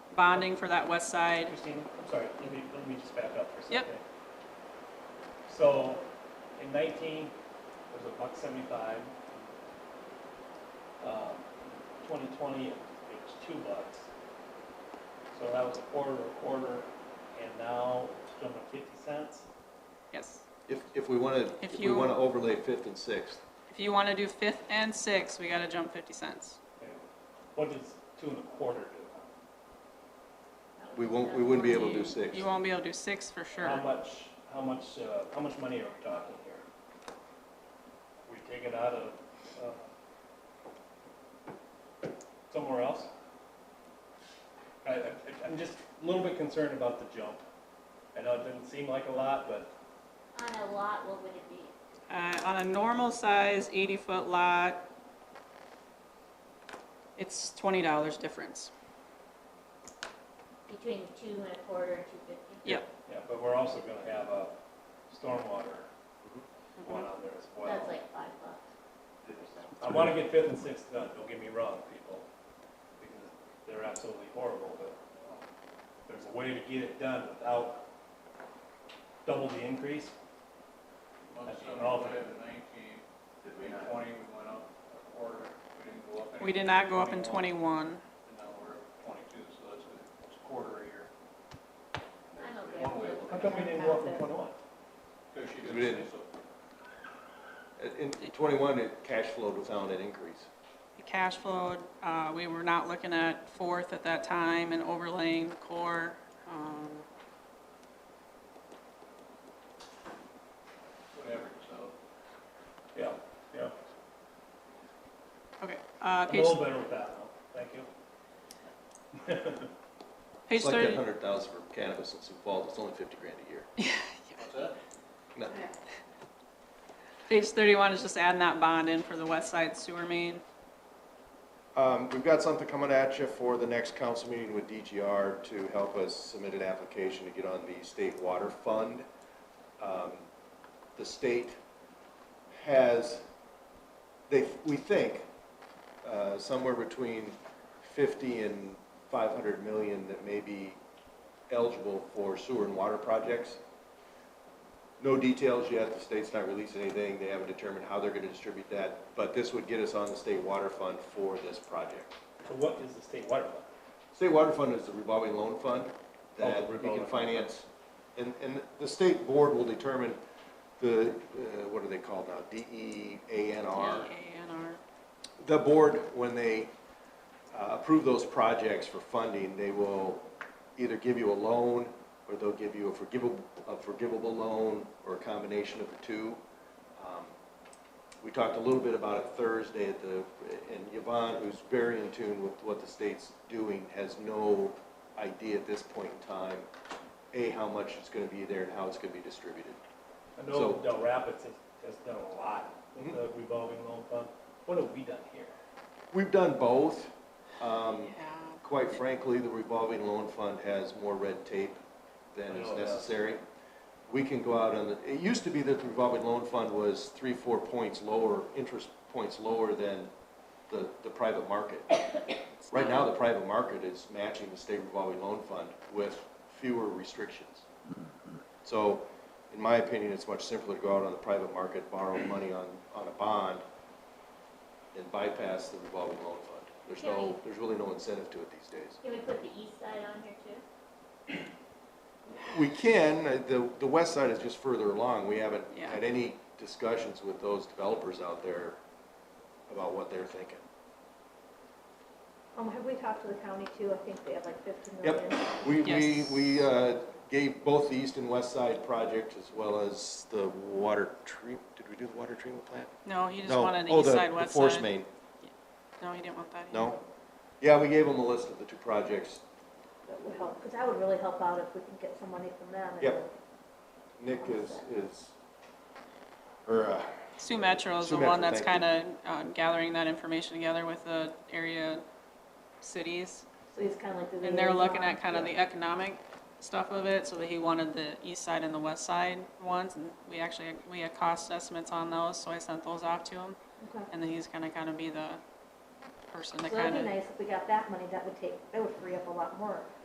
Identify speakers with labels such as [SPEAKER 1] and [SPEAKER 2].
[SPEAKER 1] bonding for that west side.
[SPEAKER 2] Christine, I'm sorry, let me, let me just back up for a
[SPEAKER 1] Yep.
[SPEAKER 2] second. So, in nineteen, it was a buck seventy-five. Um, twenty twenty, it was two bucks. So that was a quarter, a quarter, and now it's jumped to fifty cents.
[SPEAKER 1] Yes.
[SPEAKER 3] If, if we want to,
[SPEAKER 1] If
[SPEAKER 3] if we
[SPEAKER 1] you-
[SPEAKER 3] want to overlay Fifth and Sixth,
[SPEAKER 1] If you want to do fifth and sixth, we got to jump 50 cents.
[SPEAKER 2] What does two and a quarter do?
[SPEAKER 3] we won't, we wouldn't be able to do Sixth.
[SPEAKER 1] You won't be able to do six for
[SPEAKER 2] How
[SPEAKER 1] sure.
[SPEAKER 2] much, how much, uh, how much money are we talking here? We take it out of, uh, somewhere else? I, I, I'm just a little bit concerned about the jump. I know it doesn't seem like a lot, but
[SPEAKER 4] On a lot, what would it be?
[SPEAKER 1] Uh, on a normal size 80 foot lot, it's $20 difference.
[SPEAKER 4] Between two and a quarter and two fifty?
[SPEAKER 1] Yep.
[SPEAKER 2] Yeah, but we're also gonna have a stormwater one on there as
[SPEAKER 4] That's
[SPEAKER 2] well.
[SPEAKER 4] like five bucks.
[SPEAKER 2] I wanna get fifth and sixth done, don't get me wrong, people, because they're absolutely horrible, but um, there's a way to get it done without double the increase.
[SPEAKER 5] Well, so
[SPEAKER 2] An alternate.
[SPEAKER 5] we had the nineteen, did we twenty, we went up a quarter, we didn't go up any.
[SPEAKER 1] We did not go up in 21.
[SPEAKER 5] And now we're at twenty-two, so that's a, it's a quarter a year.
[SPEAKER 4] I'm okay
[SPEAKER 5] One way
[SPEAKER 4] with
[SPEAKER 5] of
[SPEAKER 2] How
[SPEAKER 5] looking
[SPEAKER 2] come
[SPEAKER 5] at
[SPEAKER 2] we didn't go up from twenty-one?
[SPEAKER 5] it, 'cause she
[SPEAKER 3] We
[SPEAKER 5] didn't
[SPEAKER 3] didn't.
[SPEAKER 5] say so.
[SPEAKER 3] uh, In twenty-one, it cash flowed without an increase.
[SPEAKER 1] The cash flow, uh, we were not looking at fourth at that time and overlaying the core. Um,
[SPEAKER 5] Whatever, so.
[SPEAKER 2] Yeah, yeah.
[SPEAKER 1] okay, uh,
[SPEAKER 2] I'm a
[SPEAKER 1] page,
[SPEAKER 2] little better with that now, thank you.
[SPEAKER 1] page
[SPEAKER 3] It's like that
[SPEAKER 1] 30.
[SPEAKER 3] hundred thousand for cannabis in Sioux Falls, it's only fifty grand a year.
[SPEAKER 5] What's that?
[SPEAKER 3] Nothing.
[SPEAKER 1] Page 31 is just adding that bond in for the west side sewer main.
[SPEAKER 3] Um, we've got something coming at you for the next council meeting with DGR to help us submit an application to get on the state water fund. Um, The state has, they, we think, uh, somewhere between fifty and five hundred million that may be eligible for sewer and water projects. No details yet, the state's not releasing anything, they haven't determined how they're gonna distribute that, but this would get us on the state water fund for this project.
[SPEAKER 2] So what is the state water fund?
[SPEAKER 3] State water fund is the revolving loan fund
[SPEAKER 2] Oh, the
[SPEAKER 3] that we
[SPEAKER 2] revolving
[SPEAKER 3] can
[SPEAKER 2] fund.
[SPEAKER 3] finance, and, and the state board will determine the, uh, what are they called now, E DEANR?
[SPEAKER 1] DANR.
[SPEAKER 3] The board, when they uh, approve those projects for funding, they will either give you a loan, or they'll give you a forgivable, a forgivable loan, or a combination of the two. Um, We talked a little bit about it Thursday at the, and Yvonne, who's very in tune with what the state's doing, has no idea at this point in time, A, how much it's gonna be there and how it's gonna be distributed.
[SPEAKER 2] I
[SPEAKER 3] So-
[SPEAKER 2] know Del Rapids has, has done a lot with
[SPEAKER 3] Mhm.
[SPEAKER 2] the revolving loan fund. What have we done here?
[SPEAKER 3] We've done both. Um,
[SPEAKER 1] Yeah.
[SPEAKER 3] Quite frankly, the revolving loan fund has more red tape than is
[SPEAKER 2] I know that.
[SPEAKER 3] necessary. We can go out on the, it used to be that the revolving loan fund was three, four points lower, interest points lower than the, the private market. Right now, the private market is matching the state revolving loan fund with fewer restrictions. So, in my opinion, it's much simpler to go out on the private market, borrow money on, on a bond, and bypass the revolving loan fund. There's no, there's really no incentive to it these days.
[SPEAKER 4] Can we put the east side on here too?
[SPEAKER 3] We can, uh, the, the west side is just further along, we haven't
[SPEAKER 1] Yeah.
[SPEAKER 3] had any discussions with those developers out there about what they're thinking.
[SPEAKER 6] Um, have we talked to the county too? I think they have like fifty million.
[SPEAKER 3] Yep, we, we,
[SPEAKER 1] Yes.
[SPEAKER 3] we, uh, gave both the east and west side project as well as the water treat, did we do the water treatment plant?
[SPEAKER 1] No, he just
[SPEAKER 3] No.
[SPEAKER 1] wanted the
[SPEAKER 3] Oh,
[SPEAKER 1] east side,
[SPEAKER 3] The
[SPEAKER 1] west
[SPEAKER 3] force
[SPEAKER 1] side.
[SPEAKER 3] main,
[SPEAKER 1] No, he didn't want that. either.
[SPEAKER 3] no? Yeah, we gave them a list of the two projects,
[SPEAKER 6] That would help, because that would really help out if we can get some money from them. and
[SPEAKER 3] Yep. Nick is, is, or, uh,
[SPEAKER 1] Sue Metro is
[SPEAKER 3] Sue
[SPEAKER 1] the one
[SPEAKER 3] Metro,
[SPEAKER 1] that's
[SPEAKER 3] thank
[SPEAKER 1] kind of gathering that information together with the area cities.
[SPEAKER 6] So he's kind of like the.
[SPEAKER 1] And they're looking
[SPEAKER 6] liaison.
[SPEAKER 1] at kind of the economic stuff of it, so that he wanted the east side and the west side ones. And we actually, we had cost estimates on those, so I sent those off to him.
[SPEAKER 6] Okay.
[SPEAKER 1] And then he's gonna kind of be the person to
[SPEAKER 6] So
[SPEAKER 1] kind
[SPEAKER 6] that'd
[SPEAKER 1] of.
[SPEAKER 6] be nice if we got that money, that would take, that would free up a lot more.